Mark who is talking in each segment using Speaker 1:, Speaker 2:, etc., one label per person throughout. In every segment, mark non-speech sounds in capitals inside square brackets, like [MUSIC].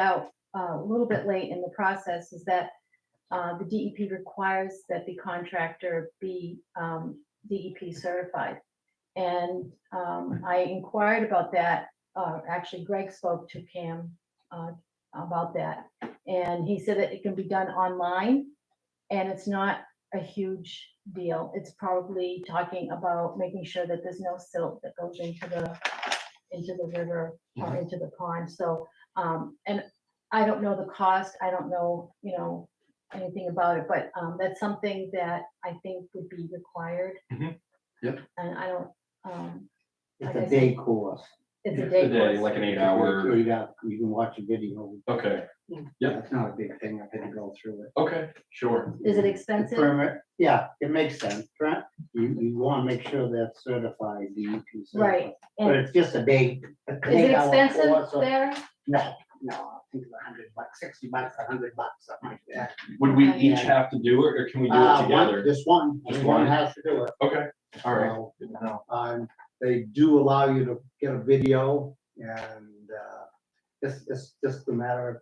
Speaker 1: out uh, a little bit late in the process is that uh, the DEP requires that the contractor be um, DEP certified. And um, I inquired about that, uh, actually Greg spoke to Pam uh, about that. And he said that it can be done online and it's not a huge deal. It's probably talking about making sure that there's no silt that goes into the, into the river or into the pond. So, um, and I don't know the cost. I don't know, you know, anything about it, but, um, that's something that I think would be required.
Speaker 2: Mhm. Yep.
Speaker 1: And I don't, um,
Speaker 3: It's
Speaker 1: Like
Speaker 3: a
Speaker 1: I
Speaker 3: day course.
Speaker 1: it's
Speaker 2: Yeah,
Speaker 1: a
Speaker 2: a
Speaker 1: day
Speaker 2: day,
Speaker 1: course.
Speaker 2: like an eight
Speaker 3: You
Speaker 2: hour,
Speaker 3: you got, you can watch a video.
Speaker 2: okay, Yeah.
Speaker 3: That's not a big thing. I had to go through it.
Speaker 2: okay, sure,
Speaker 1: Is it
Speaker 3: The
Speaker 1: expensive?
Speaker 3: Permit, yeah, it makes sense, right? You, you wanna make sure that's certified, DEP certified.
Speaker 1: Right.
Speaker 3: But
Speaker 1: And
Speaker 3: it's just a day. Is
Speaker 1: is it expensive there? [LAUGHS]
Speaker 3: No, no, I think it's a hundred bucks, sixty bucks, a hundred bucks, something like that.
Speaker 2: would we
Speaker 1: Okay.
Speaker 2: each have to do it, or can we do it
Speaker 3: Uh, one-
Speaker 2: together?
Speaker 3: This one,
Speaker 2: Just
Speaker 3: this one
Speaker 2: one?
Speaker 3: has to do it.
Speaker 2: Okay, all right,
Speaker 3: So, you know, Um, they do allow you to get a video and, uh, it's, it's just a matter of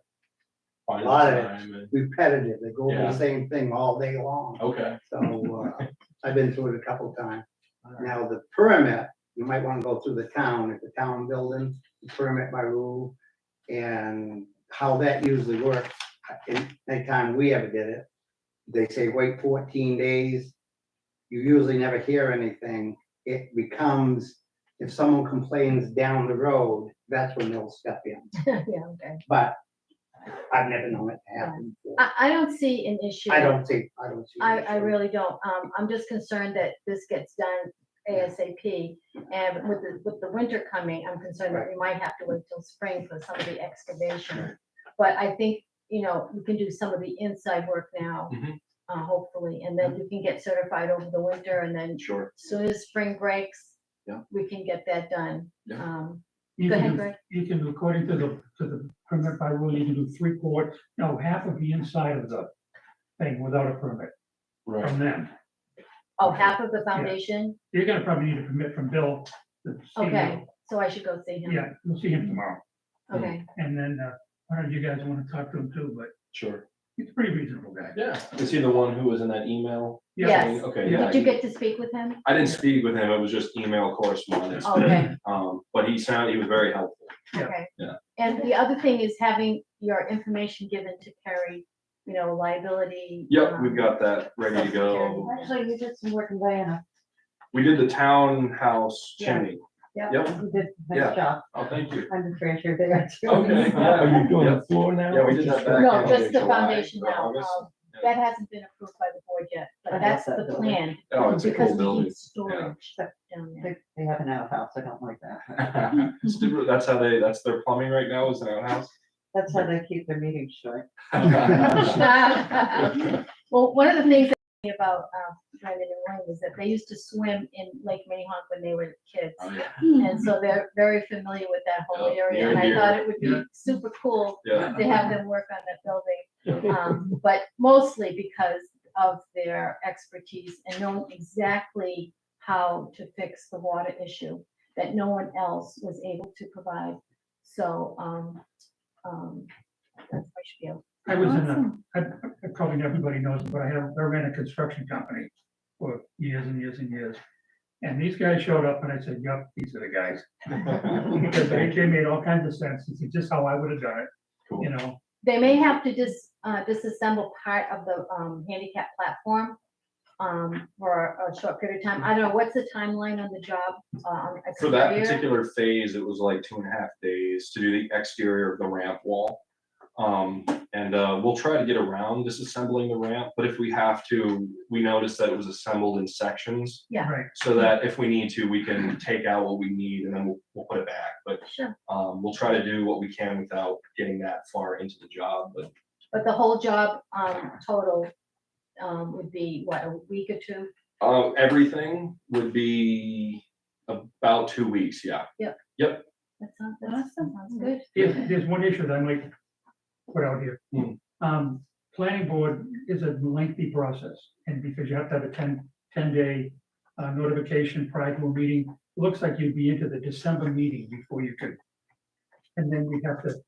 Speaker 2: final
Speaker 3: lot of it.
Speaker 2: time, and-
Speaker 3: repetitive. They go over
Speaker 2: Yeah. Oh.
Speaker 3: the same thing all day long.
Speaker 2: okay,
Speaker 3: So uh, I've been through it a couple times. Now, the permit, you might want to go through the town, if the town building, the permit by rule. And how that usually works, in any time we ever did it, they say wait fourteen days. You usually never hear anything. It becomes, if someone complains down the road, that's when they'll step in.
Speaker 1: Yeah, okay.
Speaker 3: But I've never known it to happen. before.
Speaker 1: I, I don't see an issue.
Speaker 3: I don't see, I don't see. an
Speaker 1: I, I
Speaker 3: issue.
Speaker 1: really don't. Um, I'm just concerned that this gets done ASAP. And with the, with the winter coming, I'm concerned that we might have to wait till spring for some of the excavation. But I think, you know, you can do some of the inside work now,
Speaker 2: Mhm.
Speaker 1: uh, hopefully, and then you can get certified over the winter and then
Speaker 2: sure,
Speaker 1: soon as spring breaks,
Speaker 2: Yeah.
Speaker 1: we can get that done.
Speaker 2: Yeah.
Speaker 1: Um,
Speaker 4: You
Speaker 1: Go
Speaker 4: can
Speaker 1: ahead,
Speaker 4: do,
Speaker 1: Greg.
Speaker 4: you can, according to the, to the permit by rule, you can do three quarters, no, half of the inside of the thing without a permit
Speaker 2: right,
Speaker 4: from them.
Speaker 1: Oh, half of the foundation?
Speaker 4: You're gonna probably need a permit from Bill. to see him.
Speaker 1: Okay, so I should go see him?
Speaker 4: Yeah, we'll see him tomorrow.
Speaker 1: Okay,
Speaker 4: And then, uh, I don't know if you guys wanna talk to him too, but
Speaker 2: sure,
Speaker 4: he's a pretty reasonable guy.
Speaker 2: yeah, is he the one who was in that email?
Speaker 1: Yes.
Speaker 2: thing? Okay,
Speaker 4: Yeah.
Speaker 2: yeah.
Speaker 1: did you
Speaker 2: he-
Speaker 1: get to speak with him?
Speaker 2: I didn't speak with him, it was just email correspondence,
Speaker 1: Oh, Okay,
Speaker 2: um, but he sounded, he was very helpful,
Speaker 4: Yeah.
Speaker 1: okay.
Speaker 2: Yeah.
Speaker 1: And the other thing is having your information given to Perry, you know, liability.
Speaker 2: yep,
Speaker 1: um,
Speaker 2: we've got that ready to go.
Speaker 5: Actually, you did some work in Diana.
Speaker 2: We did the townhouse
Speaker 5: Yeah.
Speaker 2: chimney,
Speaker 5: Yeah,
Speaker 2: Yep.
Speaker 5: You did a
Speaker 2: Yeah.
Speaker 5: nice job.
Speaker 2: oh, thank you,
Speaker 5: I'm the treasure there. too.
Speaker 2: okay.
Speaker 6: Are you doing
Speaker 2: Yep.
Speaker 6: the floor now?
Speaker 2: Yeah, we did that back.
Speaker 1: No,
Speaker 2: in
Speaker 1: just the
Speaker 2: July,
Speaker 1: foundation
Speaker 2: or
Speaker 1: now.
Speaker 2: August.
Speaker 1: um, That hasn't been approved by the board yet, but
Speaker 5: I love
Speaker 1: that's
Speaker 5: that
Speaker 1: the
Speaker 5: building.
Speaker 1: plan.
Speaker 2: Oh, it's a
Speaker 1: because
Speaker 2: cool
Speaker 1: we need [LAUGHS]
Speaker 2: building. [LAUGHS]
Speaker 1: Storage down there.
Speaker 5: They [LAUGHS] they have an outhouse, I don't like that.
Speaker 2: It's different- That's how they, that's their plumbing right now is an outhouse. [LAUGHS] Oh,
Speaker 5: That's how they keep their meetings short.
Speaker 1: [LAUGHS] Well, one of the things that- about uh, Brandon and Wayne is that they used to swim in Lake Minnehaha when they were kids.
Speaker 2: Oh, yeah.
Speaker 1: And so they're very familiar with that whole
Speaker 2: Yeah,
Speaker 1: area.
Speaker 2: near
Speaker 1: And I
Speaker 2: and
Speaker 1: thought it would be
Speaker 4: Yeah.
Speaker 1: super cool [LAUGHS]
Speaker 2: Yeah,
Speaker 1: to have them work on that building. um, But mostly because of their expertise and knowing exactly how to fix the water issue that no one else was able to provide. So, um, um, that's my spiel.
Speaker 4: I was in a, I, I- probably everybody knows, but I have, I ran a construction company for years and years and years. And these guys showed up and I said, yep, these are the guys. Because they, they made all kinds of sense. It's just how I would have done it,
Speaker 2: cool.
Speaker 4: you know?
Speaker 1: They may have to dis, uh, disassemble part of the, um, handicap platform, um, for a short period of time. I don't know, what's the timeline on the job? um,
Speaker 2: For that
Speaker 1: exterior?
Speaker 2: particular phase, it was like two and a half days to do the exterior of the ramp wall. Um, and, uh, we'll try to get around disassembling the ramp, but if we have to, we noticed that it was assembled in sections.
Speaker 1: Yeah.
Speaker 4: Right.
Speaker 2: So that if we need to, we can take out what we need and then we'll, we'll put it back, but,
Speaker 1: Sure,
Speaker 2: um, we'll try to do what we can without getting that far into the job, but
Speaker 1: but the whole job, um, total, um, would be what, a week or two?
Speaker 2: Uh, everything would be about two weeks, yeah.
Speaker 1: That sounds, that sounds good.
Speaker 4: There's, there's one issue that I might put out here.
Speaker 2: Hmm.
Speaker 4: Um, planning board is a lengthy process, and because you have to have a 10 10-day uh, notification prior to a meeting, looks like you'd be into the December meeting before you could. And then we have to